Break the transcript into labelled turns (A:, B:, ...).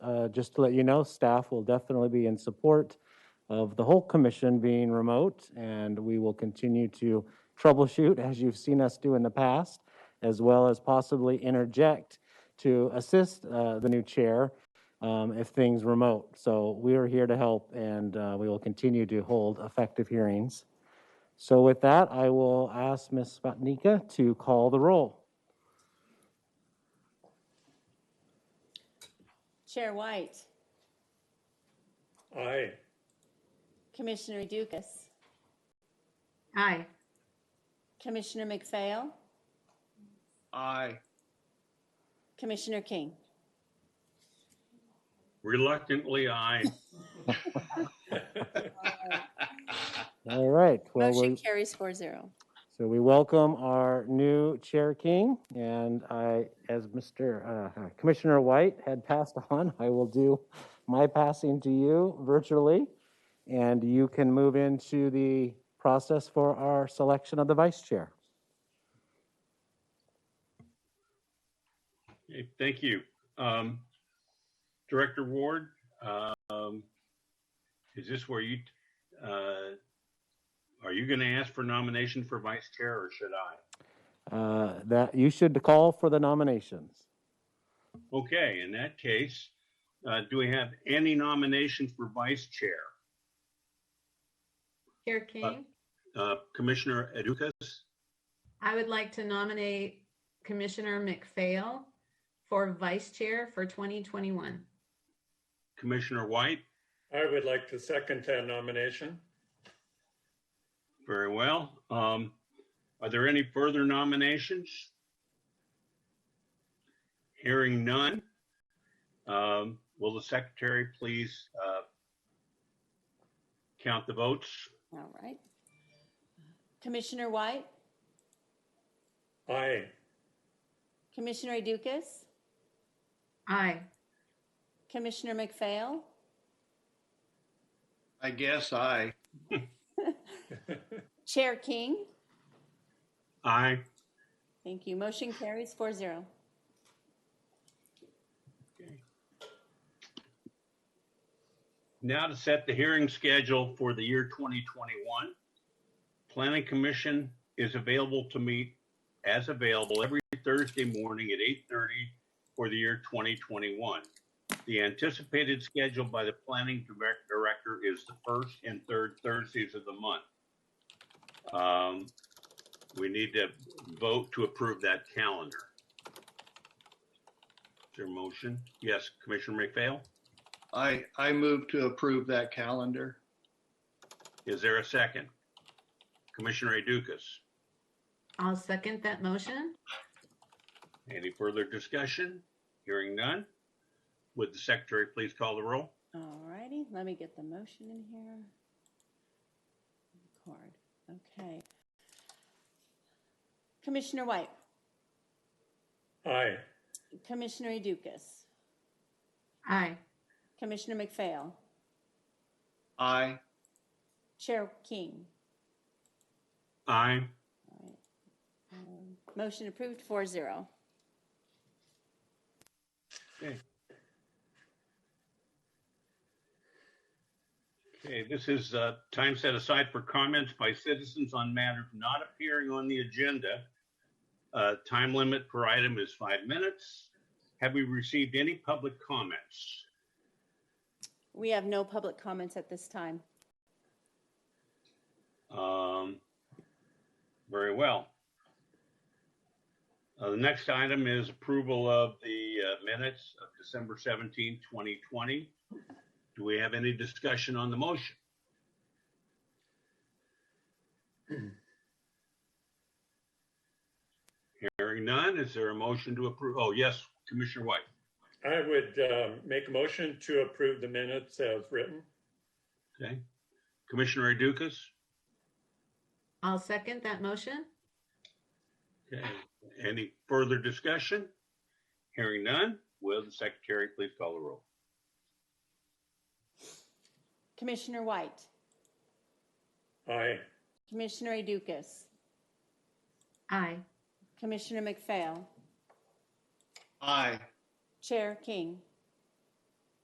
A: uh, just to let you know, staff will definitely be in support of the whole commission being remote, and we will continue to troubleshoot, as you've seen us do in the past, as well as possibly interject to assist uh, the new chair um, if things remote. So we are here to help, and uh, we will continue to hold effective hearings. So with that, I will ask Ms. Sputnika to call the roll.
B: Chair White,
C: Aye.
B: Commissioner Dukas,
D: Aye.
B: Commissioner McPhail,
E: Aye.
B: Commissioner King.
C: Reluctantly, aye.
A: All right. well,
B: Motion
A: we-
B: carries four zero.
A: So we welcome our new Chair King, and I, as Mr. uh, Commissioner White had passed on, I will do my passing to you virtually, and you can move into the process for our selection of the Vice Chair.
C: Okay, Thank you. Um, Director Ward, um, is this where you, uh, are you going to ask for nomination for vice chair or should I?
A: Uh, That, you should call for the nominations.
C: Okay, in that case, uh, do we have any nominations for vice chair?
D: Chair King,
C: Uh, Commissioner Edukas?
D: I would like to nominate Commissioner McPhail for Vice Chair for 2021.
C: Commissioner White?
F: I would like to second that nomination.
C: Very well. Um, are there any further nominations? Hearing none. Um, will the secretary please, uh, count the votes?
B: All right. Commissioner White,
F: Aye.
B: Commissioner Dukas,
D: Aye.
B: Commissioner McPhail,
E: I guess aye.
B: Chair King.
C: Aye.
B: Thank you. Motion carries four zero.
C: Now to set the hearing schedule for the year 2021. Planning Commission is available to meet as available every Thursday morning at 8:30 for the year 2021. The anticipated schedule by the Planning direct- Director is the first and third Thursdays of the month. Um, We need to vote to approve that calendar. Is there a motion? Yes, Commissioner McPhail?
E: I, I move to approve that calendar.
C: Is there a second? Commissioner Dukas,
D: I'll second that motion.
C: any further discussion? Hearing none. Would the secretary please call the roll?
B: All righty, let me get the motion in here. Record, okay. Commissioner White,
F: Aye.
B: Commissioner Dukas,
D: Aye.
B: Commissioner McPhail,
E: Aye.
B: Chair King.
C: Aye.
B: All right. Um, Motion approved, four zero.
C: Okay, this is uh, time set aside for comments by citizens on matters not appearing on the agenda. Uh, Time limit per item is five minutes. Have we received any public comments?
B: We have no public comments at this time.
C: Um, very well. Uh, the next item is approval of the uh, minutes of December 17, 2020. Do we have any discussion on the motion? Hearing none, is there a motion to approve? Oh, yes, Commissioner White.
F: I would um, make a motion to approve the minutes as written.
C: Okay. Commissioner Dukas?
D: I'll second that motion.
C: Okay, any further discussion? Hearing none, will the secretary please call the roll?
B: Commissioner White,
F: Aye.
B: Commissioner Dukas,
D: Aye.
B: Commissioner McPhail,
E: Aye.
B: Chair King.